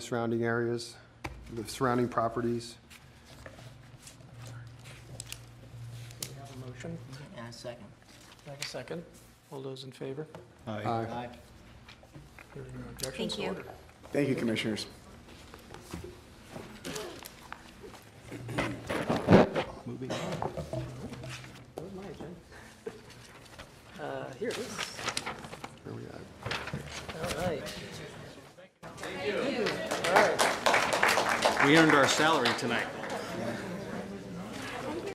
surrounding areas, the surrounding properties. We have a motion, And a second. Can I have a second. All those in favor? Aye. Hearing no objections, Thank you. order. Thank you, Commissioners. Where's my agenda? Uh, Here it is. Where we at? All right. Thank you. All right. We earned our salary tonight.